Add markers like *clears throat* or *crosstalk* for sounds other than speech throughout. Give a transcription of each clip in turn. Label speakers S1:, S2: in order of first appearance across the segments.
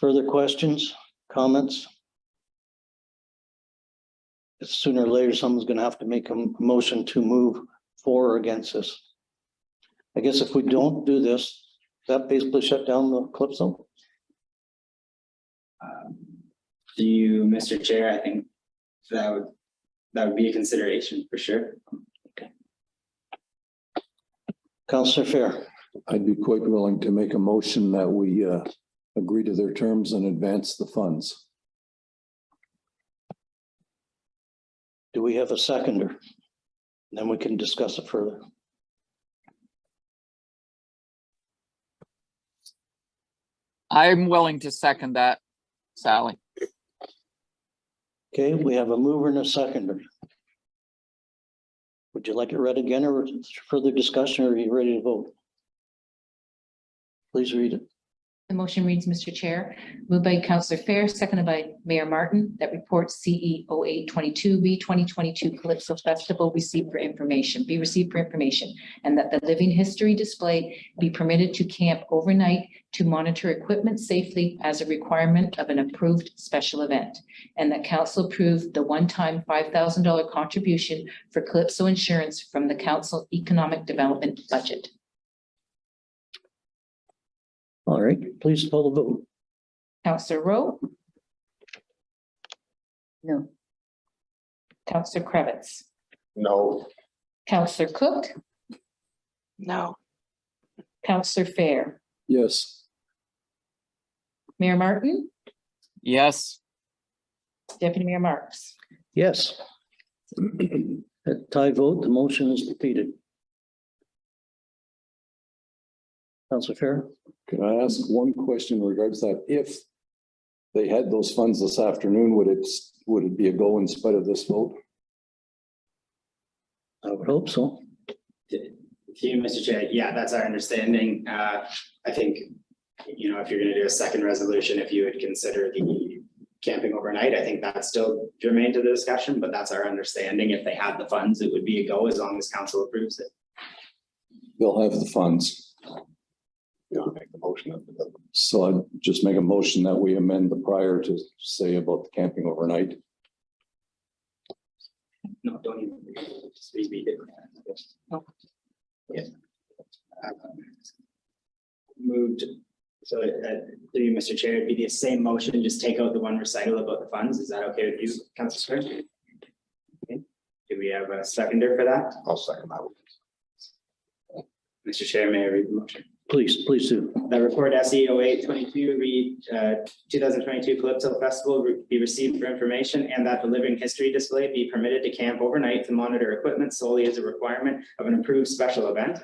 S1: Further questions, comments? Sooner or later, someone's gonna have to make a m- motion to move for or against this. I guess if we don't do this, that basically shut down the Calypso?
S2: Um, Do you, Mr. Chair, I think that would, that would be a consideration for sure.
S1: Counselor Fair,
S3: I'd be quite willing to make a motion that we uh, agree to their terms and advance the funds.
S1: do we have a seconder? Then we can discuss it further.
S4: I'm willing to second that, Sally.
S1: Okay, we have a mover and a seconder. Would you like it read again or further discussion or are you ready to vote? Please read it.
S5: The motion reads, Mr. Chair, moved by Counselor Fair, seconded by Mayor Martin, that report E CE 822 B twenty twenty-two Calypso Festival received for information, be received for information, and that the living history display be permitted to camp overnight to monitor equipment safely as a requirement of an approved special event. And that council approved the one-time five thousand dollar contribution for Calypso insurance from the council economic development budget.
S1: All right, please call the vote.
S5: Counselor Rowe? No. Counselor Cravitz?
S6: No.
S5: Counselor Cook?
S7: No,
S5: Counselor Fair?
S3: Yes,
S5: Mayor Martin?
S4: Yes,
S5: Deputy Mayor Marks?
S1: Yes. *clears throat* At tie vote, the motion is defeated. Counselor Fair,
S3: can I ask one question in regards to that? If they had those funds this afternoon, would it, would it be a go in spite of this vote?
S1: I would hope so.
S2: To you, Mr. Chair, yeah, that's our understanding. Uh, I think, you know, if you're gonna do a second resolution, if you would consider the camping overnight, I think that's still germane to the discussion, but that's our understanding. If they had the funds, it would be a go as long as council approves it.
S3: They'll have the funds.
S6: Yeah, I'll make the motion up to them.
S3: So I'd just make a motion that we amend the prior to say about the camping overnight.
S2: No, don't even, just read me it. Yeah. Um, Moved, so, uh, through you, Mr. Chair, it'd be the same motion, just take out the one recital about the funds. Is that okay with you, Councilor Square? Okay. Do we have a seconder for that?
S6: I'll second that.
S2: Mr. Chair, may I read the motion?
S1: Please, please do.
S2: The report E SE 822 read, uh, two thousand twenty-two Calypso Festival re- be received for information and that the living history display be permitted to camp overnight to monitor equipment solely as a requirement of an approved special event.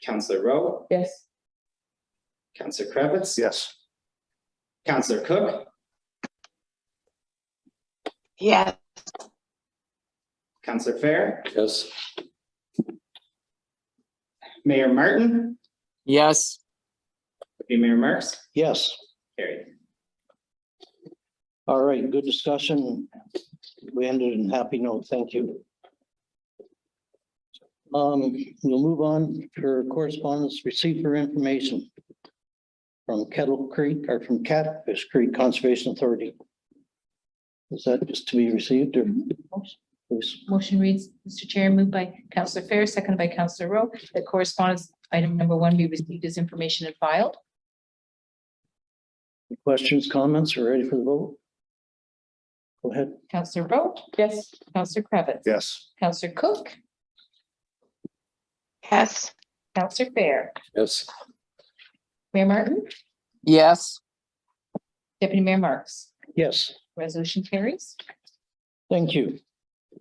S2: Counselor Rowe,
S5: Yes.
S2: Counselor Cravitz.
S6: Yes.
S2: Counselor Cook,
S7: yes,
S2: Counselor Fair,
S3: Yes,
S2: Mayor Martin,
S4: yes,
S2: Deputy Mayor Marks,
S1: Yes.
S2: carried.
S1: All right, good discussion. We ended in happy note. Thank you. Um, we'll move on for correspondence received for information from Kettle Creek or from Catfish Creek Conservation Authority. Is that just to be received or? Please.
S5: Motion reads, Mr. Chair, moved by Counselor Fair, seconded by Counselor Rowe, that correspondence item number one be received as information and filed.
S1: Questions, comments, or ready for the vote? Go ahead.
S5: Counselor Rowe? Yes. Counselor Cravitz?
S6: Yes.
S5: Counselor Cook?
S7: yes,
S5: Counselor Fair?
S3: yes,
S5: Mayor Martin?
S4: yes,
S5: Deputy Mayor Marks?
S1: Yes.
S5: Resolution carries.
S1: Thank you.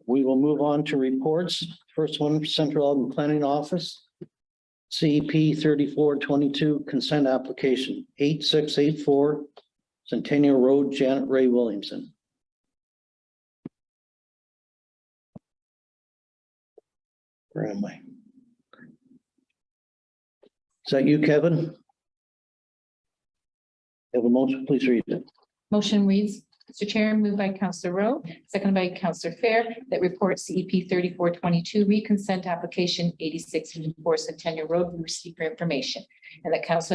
S1: We will move on to reports. First one, Central Ogden Planning Office. CP thirty-four twenty-two consent application, eight six eight four Centennial Road, Janet Ray Williamson. Where am I? Is that you, Kevin? Have a motion, please read it.
S5: Motion reads, Mr. Chair, moved by Counselor Rowe, seconded by Counselor Fair, that report CEP thirty-four twenty-two, reconsent application eighty-six four Centennial Road, be received for information. And that Counselor